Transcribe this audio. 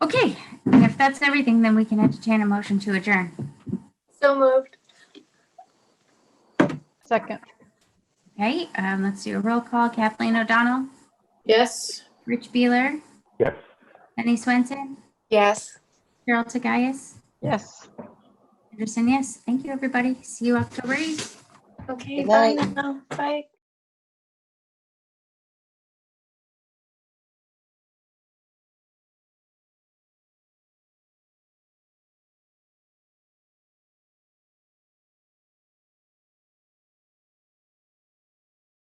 Okay, and if that's everything, then we can entertain a motion to adjourn. So moved. Second, Okay, um, let's do a roll call. Kathleen O'Donnell, Yes. Rich Beeler, Yes. Penny Swenson, Yes. Carol Tagayas, yes. Anderson, yes. Thank you, everybody. See you October 8th. Okay, Good bye night. now. Bye.